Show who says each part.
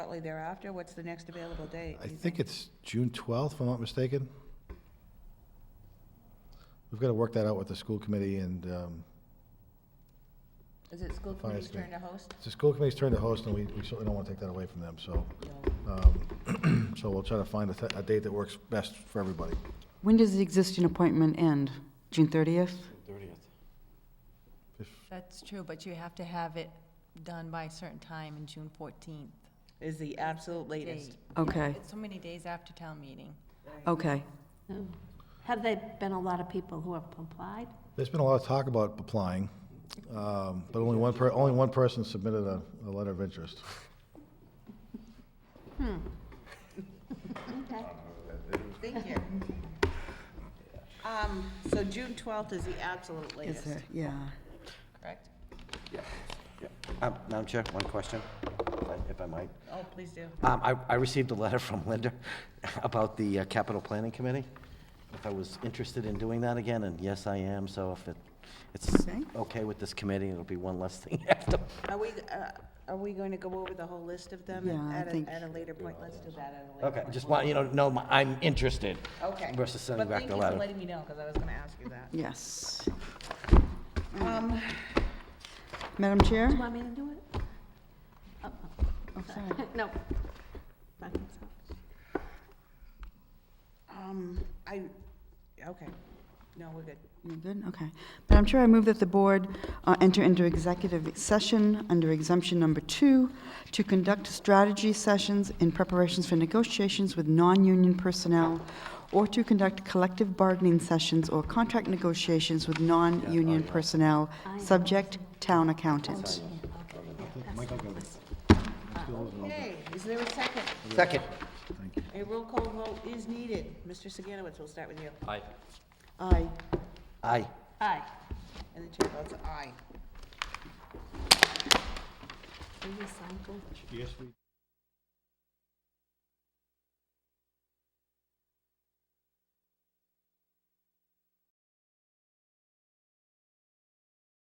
Speaker 1: shortly thereafter? What's the next available date?
Speaker 2: I think it's June 12th, if I'm not mistaken. We've got to work that out with the school committee, and um,
Speaker 1: Is it school committee's turn
Speaker 2: committee.
Speaker 1: to host?
Speaker 2: it's the school committee's turn to host, and we we certainly don't want to take that away from them, so, um, so we'll try to find a th- a date that works best for everybody.
Speaker 3: When does the existing appointment end? June 30th?
Speaker 2: If-
Speaker 4: That's true, but you have to have it done by a certain time in June 14th.
Speaker 1: Is the absolute latest?
Speaker 4: date.
Speaker 3: Okay,
Speaker 4: It's so many days after town meeting.
Speaker 3: okay.
Speaker 5: Oh. Have there been a lot of people who have applied?
Speaker 2: There's been a lot of talk about applying, um, but only one, per- only one person submitted a a letter of interest.
Speaker 5: Okay.
Speaker 1: Thank you. Um, so June twelfth is the absolute
Speaker 3: Is
Speaker 1: latest,
Speaker 3: there, yeah.
Speaker 1: correct?
Speaker 6: Yeah, yeah. Um, Madam Chair, one question, if I- if I might.
Speaker 1: Oh, please do.
Speaker 6: Um, I I received a letter from Linda about the uh, Capital Planning Committee, if I was interested in doing that again, and yes, I am, so if it- it's
Speaker 3: Okay.
Speaker 6: okay with this committee, it'll be one less thing after.
Speaker 1: Are we, uh, are we going to go over the whole list of them
Speaker 3: Yeah, I
Speaker 1: at a,
Speaker 3: think-
Speaker 1: at a later point? Let's do that at a later
Speaker 6: Okay,
Speaker 1: point.
Speaker 6: just want, you to know, my- I'm interested
Speaker 1: Okay.
Speaker 6: versus sending back the
Speaker 1: But thank you for
Speaker 6: letter.
Speaker 1: letting me know, because I was going to ask you that.
Speaker 3: Yes.
Speaker 1: Um,
Speaker 3: Madam Chair?
Speaker 5: Want me to do it? Oh,
Speaker 3: Oh, sorry.
Speaker 5: No. By myself.
Speaker 1: um, I, okay, no, we're good.
Speaker 3: You're good, okay. Madam Chair, I move that the board uh, enter into executive session under exemption number two to conduct strategy sessions in preparations for negotiations with non-union personnel or to conduct collective bargaining sessions or contract negotiations with non-union personnel, subject town accountant.
Speaker 1: Okay, is there a second?
Speaker 6: Second.
Speaker 1: A roll call vote is needed. Mr. Saganowitz, we'll start with you.
Speaker 6: Aye.
Speaker 3: Aye.
Speaker 6: Aye.
Speaker 1: Aye. And the chair votes aye.
Speaker 5: Will you sign for it?